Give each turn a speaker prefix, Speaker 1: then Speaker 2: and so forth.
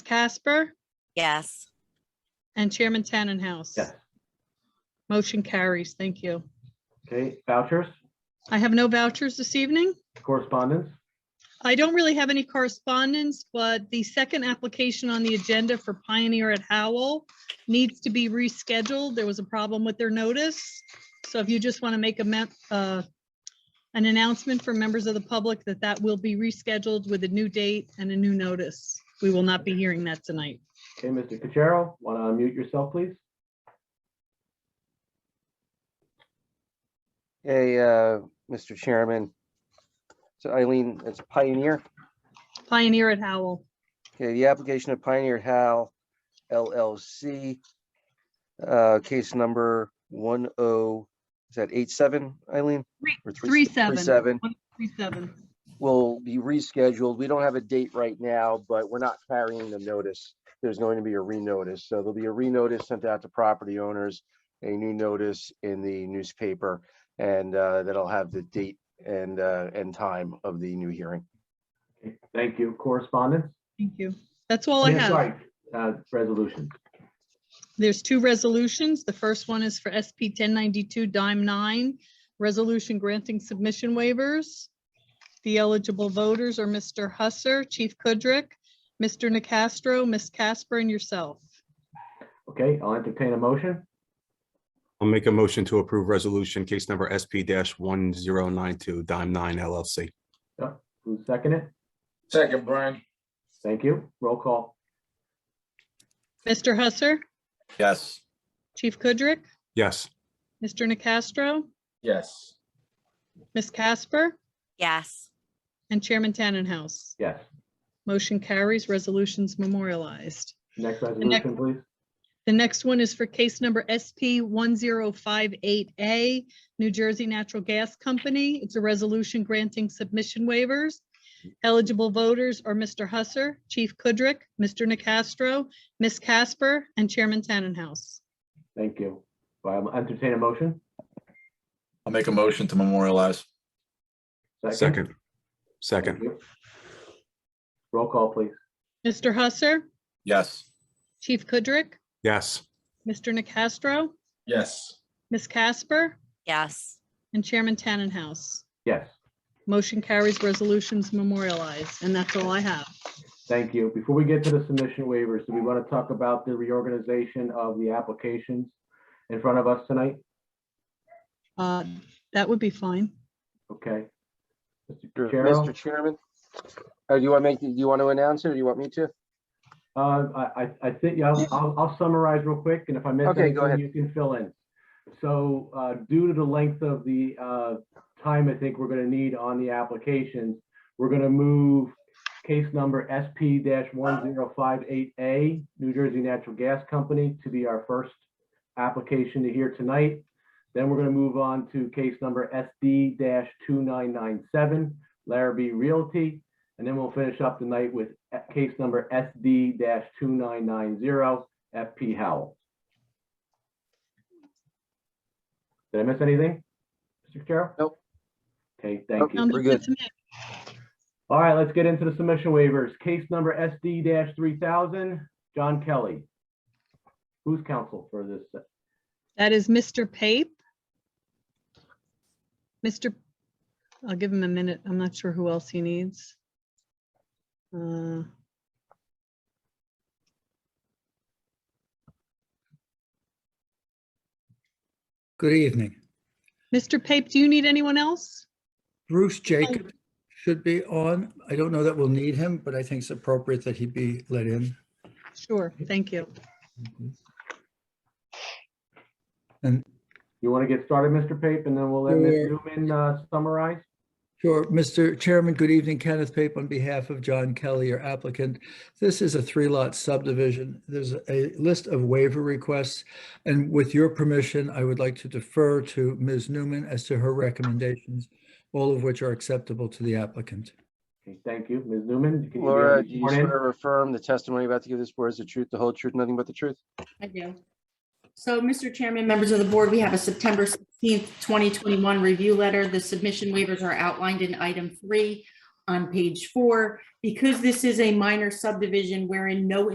Speaker 1: Casper
Speaker 2: Yes.
Speaker 1: and Chairman Tannenhouse.
Speaker 3: Yes.
Speaker 1: Motion carries. Thank you.
Speaker 3: Okay, vouchers,
Speaker 1: I have no vouchers this evening.
Speaker 3: correspondence,
Speaker 1: I don't really have any correspondence, but the second application on the agenda for Pioneer at Howell needs to be rescheduled. There was a problem with their notice. So if you just want to make a mem- uh, an announcement for members of the public that that will be rescheduled with a new date and a new notice. We will not be hearing that tonight.
Speaker 3: okay, Mr. Cuchero, want to unmute yourself, please?
Speaker 4: Hey, uh, Mr. Chairman. So Eileen, it's Pioneer.
Speaker 1: Pioneer at Howell.
Speaker 4: Okay, the application of Pioneer Hal LLC. Uh, case number one oh, is that eight seven, Eileen?
Speaker 1: Three-
Speaker 4: Or
Speaker 1: Three seven.
Speaker 4: Seven
Speaker 1: One, three seven.
Speaker 4: will be rescheduled. We don't have a date right now, but we're not carrying the notice. There's going to be a renotice. So there'll be a renotice sent out to property owners, a new notice in the newspaper, and uh, that'll have the date and, uh, and time of the new hearing.
Speaker 3: Okay, Thank you, correspondence.
Speaker 1: Thank you. That's all I
Speaker 3: Yeah,
Speaker 1: have.
Speaker 3: sorry, uh, Resolution,
Speaker 1: There's two resolutions. The first one is for SP 1092 Dime 9, resolution granting submission waivers. The eligible voters are Mr. Husser, Chief Kudrick, Mr. Nacastro, Ms. Casper, and yourself.
Speaker 3: okay, I'll entertain a motion,
Speaker 5: I'll make a motion to approve resolution case number SP one zero nine two dime nine LLC.
Speaker 3: who's second it?
Speaker 6: Second, Brian.
Speaker 3: Thank you, roll call,
Speaker 1: Mr. Husser,
Speaker 6: Yes.
Speaker 1: Chief Kudrick,
Speaker 5: Yes,
Speaker 1: Mr. Nacastro,
Speaker 6: Yes.
Speaker 1: Ms. Casper,
Speaker 2: Yes.
Speaker 1: and Chairman Tannenhouse.
Speaker 3: yes,
Speaker 1: Motion carries, resolutions memorialized.
Speaker 3: next
Speaker 1: next-
Speaker 3: resolution, please.
Speaker 1: The next one is for case number SP 1058A, New Jersey Natural Gas Company. It's a resolution granting submission waivers. Eligible voters are Mr. Husser, Chief Kudrick, Mr. Nacastro, Ms. Casper, and Chairman Tannenhouse.
Speaker 3: Thank you, I'll entertain a motion.
Speaker 6: I'll make a motion to memorialize.
Speaker 5: second,
Speaker 3: Thank
Speaker 5: second,
Speaker 3: you. Roll call, please,
Speaker 1: Mr. Husser,
Speaker 6: Yes.
Speaker 1: Chief Kudrick,
Speaker 5: yes,
Speaker 1: Mr. Nacastro,
Speaker 6: Yes.
Speaker 1: Ms. Casper,
Speaker 2: Yes.
Speaker 1: and Chairman Tannenhouse.
Speaker 3: yes,
Speaker 1: Motion carries, resolutions memorialized, and that's all I have.
Speaker 3: thank you. Before we get to the submission waivers, do we want to talk about the reorganization of the applications in front of us tonight?
Speaker 1: Uh, That would be fine.
Speaker 3: Okay. Mr.
Speaker 4: Sure.
Speaker 3: Cuchero?
Speaker 4: Mr. Chairman, uh, do you want to make, do you want to announce it or do you want me to?
Speaker 3: Uh, I, I, I think, yeah, I'll- I'll, I'll summarize real quick, and if I miss
Speaker 4: Okay, go
Speaker 3: anything,
Speaker 4: ahead.
Speaker 3: you can fill in. So, uh, due to the length of the, uh, time I think we're gonna need on the applications, we're gonna move case number SP one zero five eight A, New Jersey Natural Gas Company, to be our first application to hear tonight. Then we're gonna move on to case number SD two nine nine seven, Larrabee Realty. And then we'll finish up the night with uh, case number SD two nine nine zero FP Howell. Did I miss anything? Mr. Carroll?
Speaker 4: Nope.
Speaker 3: Okay, thank you.
Speaker 1: Sounds
Speaker 4: We're good.
Speaker 1: to me.
Speaker 3: All right, let's get into the submission waivers. Case number SD three thousand, John Kelly. Who's counsel for this?
Speaker 1: That is Mr. Pape. Mr., I'll give him a minute. I'm not sure who else he needs. Uh,
Speaker 7: Good evening.
Speaker 1: Mr. Pape, do you need anyone else?
Speaker 7: Bruce Jacob should be on. I don't know that we'll need him, but I think it's appropriate that he be let in.
Speaker 1: Sure, thank you.
Speaker 7: And
Speaker 3: You want to get started, Mr. Pape, and then we'll let Ms. Newman uh, summarize?
Speaker 7: Sure, Mr. Chairman, good evening. Kenneth Pape on behalf of John Kelly, your applicant. This is a three-lot subdivision. There's a list of waiver requests. And with your permission, I would like to defer to Ms. Newman as to her recommendations, all of which are acceptable to the applicant.
Speaker 3: Okay, Thank you. Ms. Newman? can you
Speaker 4: Laura,
Speaker 3: give
Speaker 4: do
Speaker 3: us
Speaker 4: you
Speaker 3: more in?
Speaker 4: swear or affirm the testimony you're about to give this board is the truth, the whole truth, nothing but the truth?
Speaker 8: I do. So, Mr. Chairman, members of the board, we have a September 16th, 2021 review letter. The submission waivers are outlined in item three on page four. Because this is a minor subdivision wherein no